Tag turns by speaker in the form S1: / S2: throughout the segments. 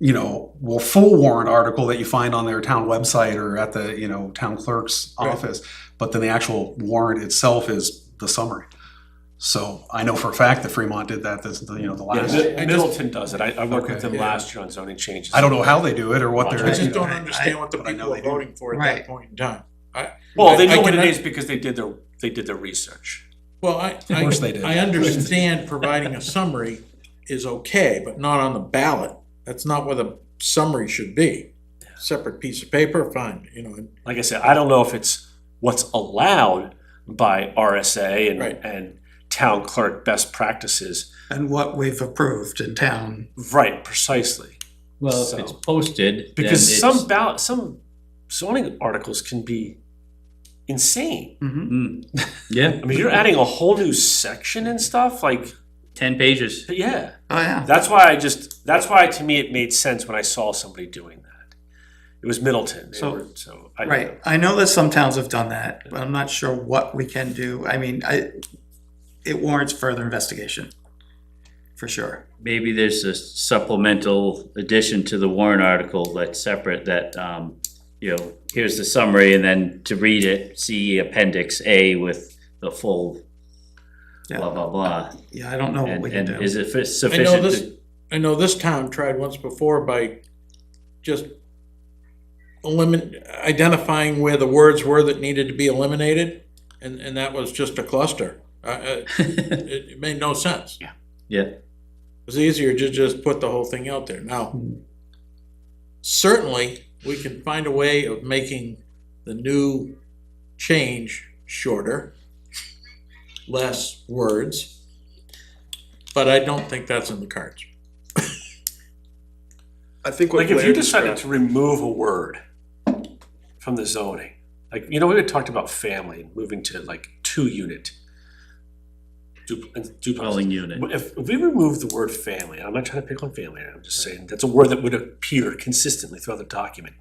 S1: you know, well, full warrant article that you find on their town website or at the, you know, town clerk's
S2: Right.
S1: office, but then the actual warrant itself is the summary. So I know for a fact that Fremont did that, this, the, you know, the
S3: Yeah,
S1: last,
S3: Mi- Middleton does it. I, I worked with
S1: Okay,
S3: them
S2: yeah.
S3: last year on zoning changes.
S1: I don't know how they do it or what they're.
S2: I just don't
S1: you know,
S2: understand what the
S1: But I know
S2: people are
S1: they do.
S2: voting for at
S4: Right.
S2: that point in time.
S3: Well, they
S2: I
S3: know what it
S2: cannot-
S3: is because they did their, they did their research.
S2: Well, I,
S1: Of
S2: I,
S1: course they did.
S2: I understand providing a summary is okay, but not on the ballot. That's not what a summary should be. Separate piece of paper, fine, you know, and-
S3: Like I said, I don't know if it's what's allowed by RSA and,
S2: Right.
S3: and town clerk best practices.
S5: and what we've approved in town.
S3: Right, precisely.
S6: Well, if it's
S3: So-
S6: posted, then
S3: Because
S6: it's.
S3: some ballot, some zoning articles can be insane.
S6: Mm. Yeah,
S3: I mean, you're adding a whole new section and stuff, like,
S6: ten pages.
S3: but yeah.
S5: Oh, yeah.
S3: That's why I just, that's why to me it made sense when I saw somebody doing that. It was Middleton, they
S5: So-
S3: were, so. I-
S5: Right. I know that some towns have done that, but I'm not sure what we can do. I mean, I, it warrants further investigation, for sure.
S6: Maybe there's a supplemental addition to the warrant article that's separate that, um, you know, here's the summary and then to read it, see appendix A with the full blah,
S5: Yeah,
S6: blah, blah.
S5: yeah, I don't know what
S6: And,
S5: we can
S6: and
S5: do.
S6: is it fi-
S2: I know
S6: sufficient
S2: this,
S6: to?
S2: I know this town tried once before by just elimin, identifying where the words were that needed to be eliminated, and, and that was just a cluster. Uh, uh, it, it made no sense. It
S6: Yeah.
S2: was easier to just put the whole thing out there. Now, certainly, we can find a way of making the new change shorter, less words, but I don't think that's in the cards.
S7: I think what
S3: Like if you
S7: Blair
S3: decided
S7: described,
S3: to remove a word from the zoning, like, you know, we had talked about family, moving to like two unit. du- duplex.
S6: Dwelling unit.
S3: If, if we remove the word family, and I'm not trying to pick on family, I'm just saying that's a word that would appear consistently throughout the document.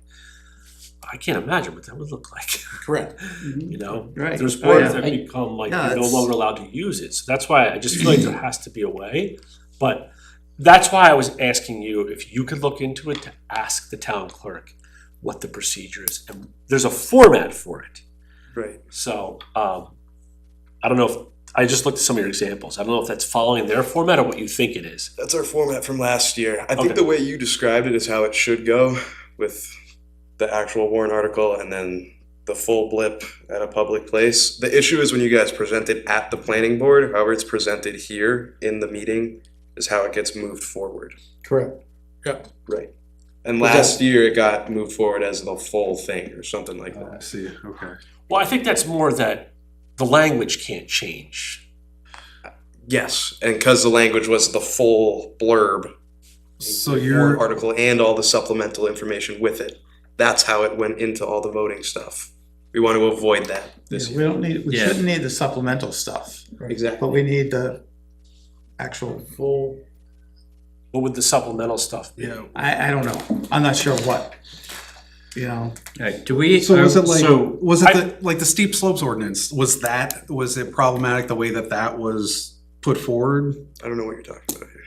S3: I can't imagine what that would look like,
S2: Correct.
S3: you know?
S5: Right.
S3: There's
S5: Oh,
S3: words
S5: yeah.
S3: that become like,
S5: Yeah,
S3: you're no
S5: it's-
S3: longer allowed to use it, so that's why I just feel like there has to be a way. But that's why I was asking you if you could look into it to ask the town clerk what the procedure is, and there's a format for it.
S7: right,
S3: So, um, I don't know if, I just looked at some of your examples. I don't know if that's following their format or what you think it is.
S7: that's our format from last year. I
S3: Okay.
S7: think the way you described it is how it should go with the actual warrant article and then the full blip at a public place. The issue is when you guys present it at the planning board, however it's presented here in the meeting is how it gets moved forward.
S2: Correct. Yeah,
S7: Right. And
S2: But
S7: last year it got moved forward as the full thing or something like
S1: Oh, I
S7: that.
S1: see, okay.
S3: Well, I think that's more that the language can't change.
S7: Yes, and because the language was the full blurb
S1: So
S7: warrant
S1: you're,
S7: article and all the supplemental information with it. That's how it went into all the voting stuff. We want to avoid that
S5: Yeah,
S7: this
S5: We
S7: year.
S5: don't need, we
S6: Yeah.
S5: shouldn't need the supplemental stuff,
S7: Exactly.
S5: but we need the actual,
S2: full.
S3: What would the supplemental stuff be?
S1: yeah,
S5: I, I don't know. I'm not sure what, you know.
S6: Alright, do we?
S1: So was it like
S6: so-
S1: was it
S3: I-
S1: the, like the steep slopes ordinance? Was that was it problematic the way that that was put forward?
S7: I don't know what you're talking about here.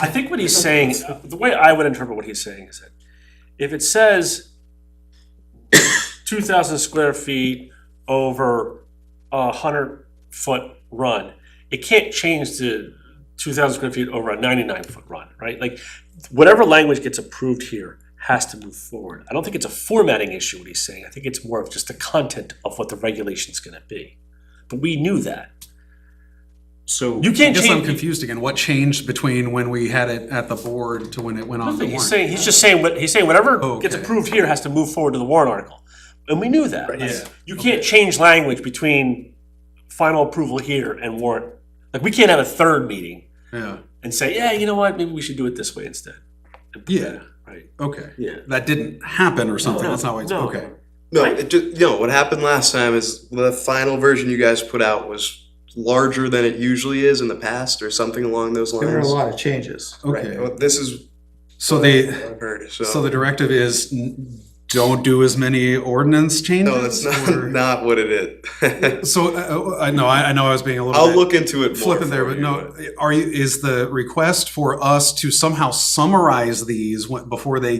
S3: I think what he's saying, the way I would interpret what he's saying is that if it says two thousand square feet over a hundred foot run, it can't change to two thousand square feet over a ninety-nine foot run, right? Like, whatever language gets approved here has to move forward. I don't think it's a formatting issue, what he's saying. I think it's more of just the content of what the regulation's gonna be. But we knew that.
S1: So
S3: You can't
S1: I guess I'm
S3: change-
S1: confused again. What changed between when we had it at the board to when it went on the
S3: Nothing.
S1: warrant?
S3: He's saying, he's just saying, what he's saying whatever
S1: Oh,
S3: gets
S1: okay.
S3: approved here has to move forward to the warrant article. And we knew that.
S1: Yeah.
S3: You can't change language between final approval here and warrant. Like, we can't have a third meeting
S1: yeah.
S3: and say, yeah, you know what, maybe we should do it this way instead. And put that
S1: Yeah.
S3: in, Right,
S1: Okay.
S3: yeah.
S1: That didn't happen or something.
S3: No,
S1: That's not why it's
S3: no.
S1: okay.
S7: No, it just, no, what happened last time is the final version you guys put out was larger than it usually is in the past or something along those
S5: There were a
S7: lines.
S5: lot of changes.
S1: Okay.
S7: Right. Well, This is
S1: So they
S7: what I've heard,
S1: so
S7: so
S1: the directive is n- don't do as many ordinance changes?
S7: No, that's not,
S1: or-
S7: not what it is.
S1: So, uh, I know, I I know I was being a little bit.
S7: I'll look into it more.
S1: flipping there,
S7: for
S1: but
S7: you,
S1: no, are you, is the request for us to somehow summarize these when- before they